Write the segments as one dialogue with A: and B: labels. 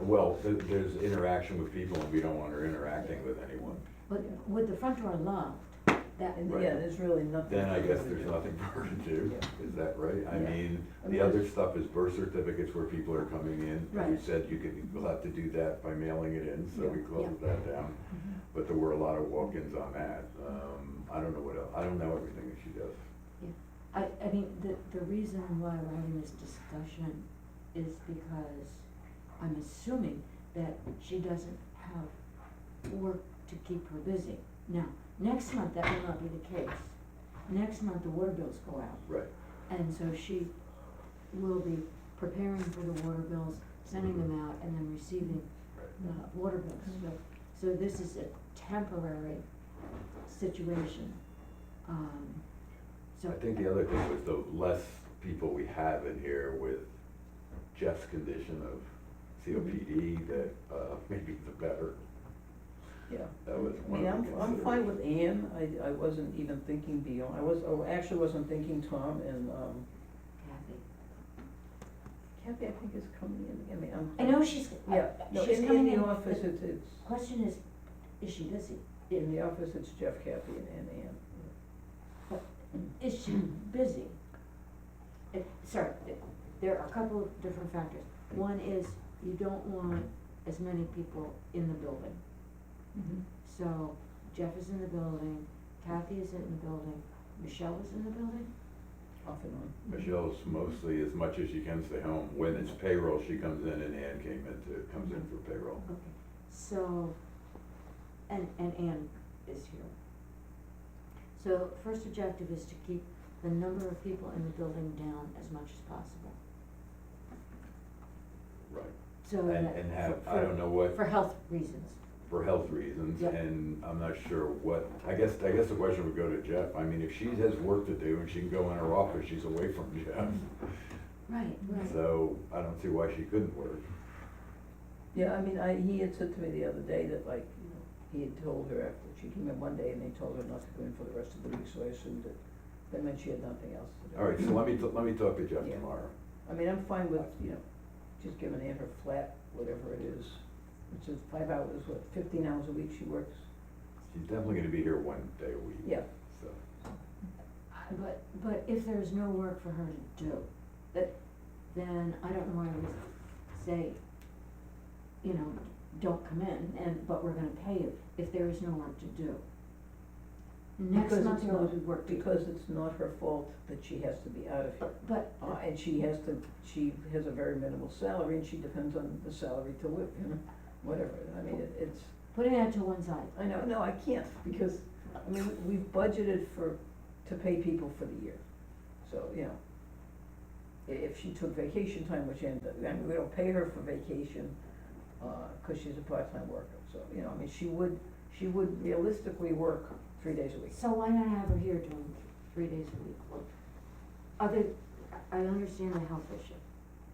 A: Well, th- there's interaction with people and we don't want her interacting with anyone.
B: But with the front door locked, that,
A: Right.
C: Yeah, there's really nothing.
A: Then I
C: for
A: guess
C: us to
A: there's
C: do.
A: nothing for her to do, is that right? I
C: Yeah.
A: mean,
C: I
A: the
C: mean,
A: other stuff is birth certificates where people are coming in. You
B: Right.
A: said you could, you'll have to do that by mailing it in, so we
C: Yeah.
A: closed that down. But there were a lot of walk-ins on that. Um, I don't know what else, I don't know everything that she does.
B: I, I mean, the, the reason why we're having this discussion is because I'm assuming that she doesn't have work to keep her busy. Now, next month, that will not be the case. Next month, the water bills go out.
A: Right.
B: And so she will be preparing for the water bills, sending them out, and then receiving uh, water bills. So, so this is a temporary situation. Um, So.
A: I think the other thing was the less people we have in here with Jeff's condition of COPD, that, uh, maybe the better.
C: Yeah.
A: That was
C: I
A: one
C: mean,
A: of the
C: I'm, I'm fine with Ann, I, I wasn't even thinking beyond, I was, I actually wasn't thinking Tom and, um,
B: Kathy.
C: Kathy, I think is coming in, I mean, I'm.
B: I know she's, uh,
C: Yeah, no,
B: she's
C: in, in
B: coming in,
C: the office,
B: the
C: it's, it's,
B: question is, is she busy?
C: in the office, it's Jeff, Kathy and Ann, Ann.
B: Is she busy? It- Sorry, th- there are a couple of different factors. One is you don't want as many people in the building. Mm-hmm. So Jeff is in the building, Kathy is in the building, Michelle is in the building?
C: Off and on.
A: Michelle's mostly, as much as she can stay home, when it's payroll, she comes in and Ann came in to, comes in for payroll.
B: Okay, so, and, and Ann is here. So first objective is to keep the number of people in the building down as much as possible.
A: Right.
B: So
A: And,
B: that-
A: and
B: for-
A: have, I
B: for-
A: don't know what,
B: For health reasons.
A: for health reasons,
B: Yep.
A: and I'm not sure what, I guess, I guess the question would go to Jeff. I mean, if she has work to do and she can go in her office, she's away from Jeff.
B: Right,
A: So I don't see why she couldn't work.
C: Yeah, I mean, I, he had said to me the other day that like, you know, he had told her after, she came in one day and they told her not to come in for the rest of the week, so I assumed that, that meant she had nothing else to do.
A: All right, so let me, t- let me talk to Jeff
C: Yeah.
A: tomorrow.
C: I mean, I'm fine with, you know, just giving Ann her flat, whatever it is, which is five hours, what, fifteen hours a week she works?
A: She's definitely gonna be here one day a week.
C: Yeah,
A: So,
B: But, but if there's no work for her to do, that, then I don't know why we say, you know, don't come in and, but we're gonna pay you if there is no work to do. Next
C: Because
B: month
C: it's
B: there will
C: not-
B: be work to do.
C: because it's not her fault that she has to be out of here.
B: But- But,
C: Uh, and she has to, she has a very minimal salary and she depends on the salary to live, you know, whatever, I mean, it- it's,
B: putting that to one side,
C: I know, no, I can't, because, I mean, we've budgeted for, to pay people for the year, so, you know. i- If she took vacation time, which end, I mean, we don't pay her for vacation, uh, cause she's a part-time worker, so, you know, I mean, she would, she would realistically work three days a week.
B: so why not have her here doing three days a week? work? Other, I I understand the health issue,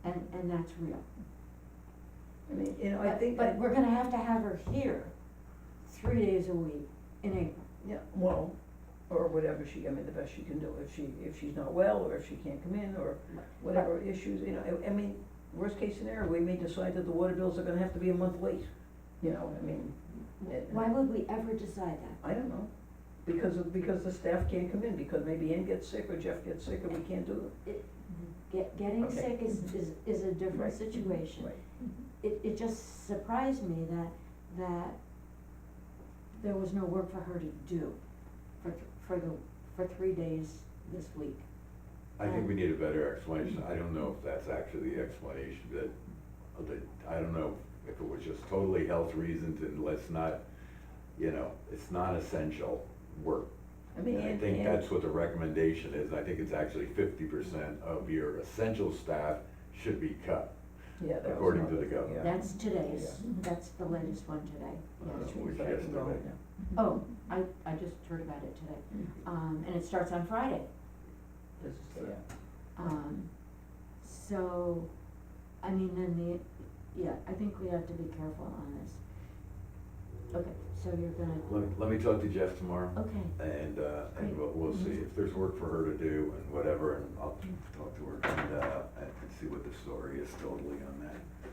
B: and, and that's real.
C: I mean, you know, I
B: But-
C: think,
B: But
C: that-
B: we're gonna have to have her here three days a week in April.
C: yeah, well, or whatever she, I mean, the best she can do, if she, if she's not well, or if she can't come in, or whatever issues, you know, I, I mean, worst case scenario, we may decide that the water bills are gonna have to be a month late, you know, I mean, it-
B: Why would we ever decide that?
C: I don't know, because of, because the staff can't come in, because maybe Ann gets sick or Jeff gets sick and we can't do
B: Get, getting
C: Okay.
B: sick is, is, is a
C: Right.
B: different
C: it.
B: situation. It, it just surprised me that, that there was no work for her to do for, th- for the, for three days this week.
A: I think we need a better explanation. I don't know if that's actually the explanation that, that, I don't know if it was just totally health reasons and let's not, you know, it's not essential work.
C: I mean,
A: And I
C: Ann,
A: think
C: Ann,
A: that's what the recommendation is. I think it's actually fifty percent of your essential staff should be cut,
C: yeah, that was
A: according to
C: another
A: the
C: thing,
A: government.
C: yeah.
B: That's today's,
C: Yeah.
B: that's the latest one today,
A: Uh,
B: yes.
C: That's true,
A: which
C: but I can go
A: yesterday.
C: home now.
B: Oh, I, I just heard about it today, um, and it starts on Friday.
C: This is, yeah,
B: Um, so, I mean, then the, yeah, I think we have to be careful on this. Okay, so you're gonna,
A: Let, let me talk to Jeff tomorrow.
B: okay,
A: And, uh, and we'll, we'll see if there's work for her to do and whatever, and I'll talk to her and, uh, and see what the story is totally on that.